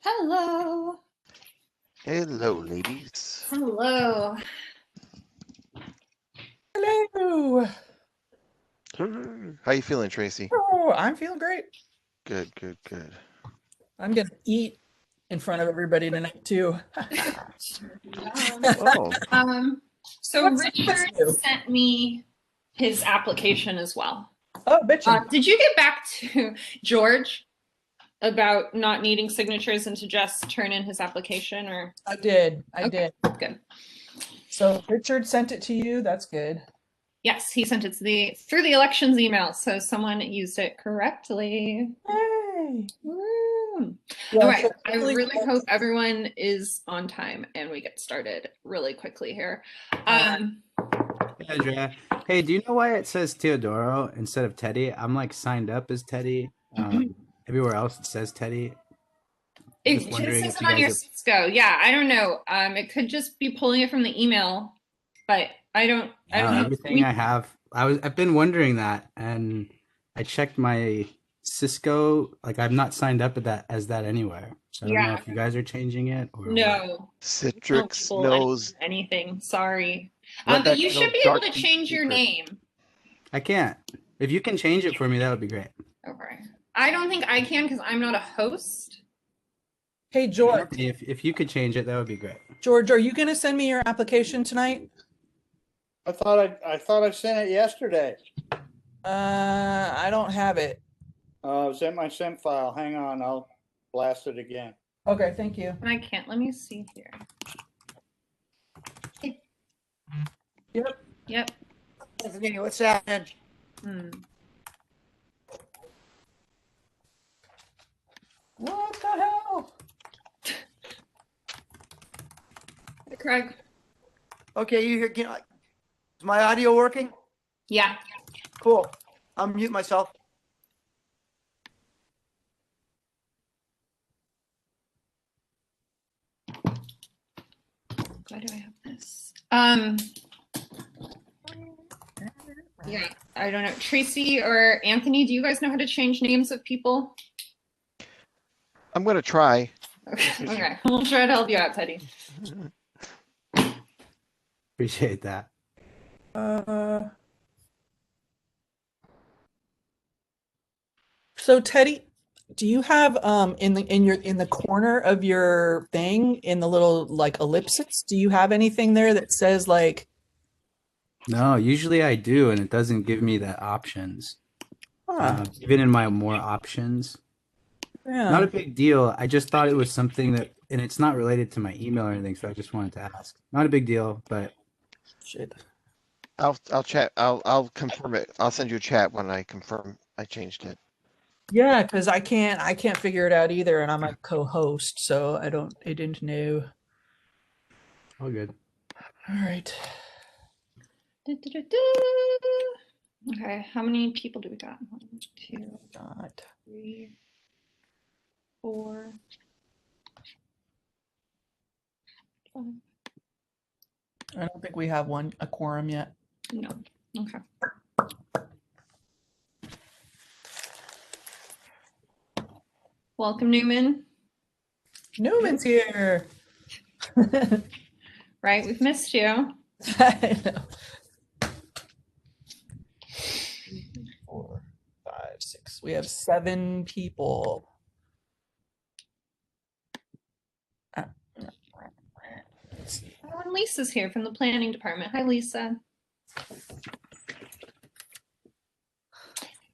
Hello. Hello, ladies. Hello. Hello. How you feeling, Tracy? Oh, I'm feeling great. Good, good, good. I'm gonna eat in front of everybody tonight too. Oh, Um, so What's up with Richard you? sent me his application as well. Oh, bitch. Uh, did you get back to George about not needing signatures and to just turn in his application or? I did. I Okay, did. Good. So Richard sent it to you. That's good. Yes, he sent it to the, through the elections email, so someone used it correctly. Yay. Woo. Yeah, All right, so I really hope everyone is on time and we get started really quickly here. Uh, Um, Yeah, Dra. Hey, do you know why it says Teodoro instead of Teddy? I'm like signed up as Teddy. Um, everywhere else it says Teddy. It Just just wondering says if it you on guys your have- Cisco. Yeah, I don't know. Um, it could just be pulling it from the email, but I don't. I Wow, don't know. Uh, everything We- I have, I was I've been wondering that, and I checked my Cisco. Like I'm not signed up at that as that anywhere. So I don't Yeah. know if you guys are changing it or what. no, no Citrix people knows. anything- anything. Sorry, Let um, but that you go should be able dark to and change your secret. name. I can't. If you can change it for me, that would be great. Okay. I don't think I can because I'm not a host. Hey, George. If if you could change it, that would be great. George, are you gonna send me your application tonight? I thought I, I thought I sent it yesterday. Uh, I don't have it. Uh, it's in my sent file. Hang on, I'll blast it again. Okay, thank you. And I can't. Let me see here. Yep. Yep. Tiffany, what's happening? Hmm. What the hell? Craig. Okay, you hear, can I- is my audio working? Yeah. Cool. I'll mute myself. Why do I have this? Um. Yeah, I don't know. Tracy or Anthony, do you guys know how to change names of people? I'm gonna try. Okay, okay. we'll try to help you out, Teddy. Appreciate that. Uh. So Teddy, do you have um in the in your in the corner of your thing in the little like ellipsis, do you have anything there that says like, No, usually I do, and it doesn't give me the options. huh, Uh, even in my more options, not "Oh, yeah, a big deal. I just thought it was something that, and it's not related to my email or anything, so I just wanted to ask. Not a big deal, but shit. I'll I'll chat. I'll I'll confirm it. I'll send you a chat when I confirm I changed it. Yeah, because I can't I can't figure it out either, and I'm a co-host, so I don't I didn't know. all good. All right. Du-du-du-du. Okay, how many people do we got? One, two, Got- three, four, five. I don't think we have one a quorum yet. No. Okay. Welcome, Newman. Newman's here. Right, we've missed you. I know. Four, five, six. We have seven people. Uh, let's see. Oh, and Lisa's here from the planning department. Hi, Lisa.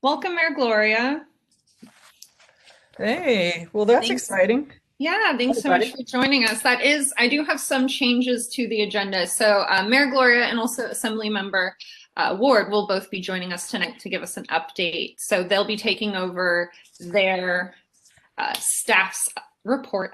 Welcome, Mayor Gloria. Hey, well, that's Thanks. exciting. Yeah, thanks so much for joining us. That is, I do have some changes to the agenda. So uh, Mayor Gloria and also Assemblymember uh, Ward will both be joining us tonight to give us an update. So they'll be taking over their uh, staff's report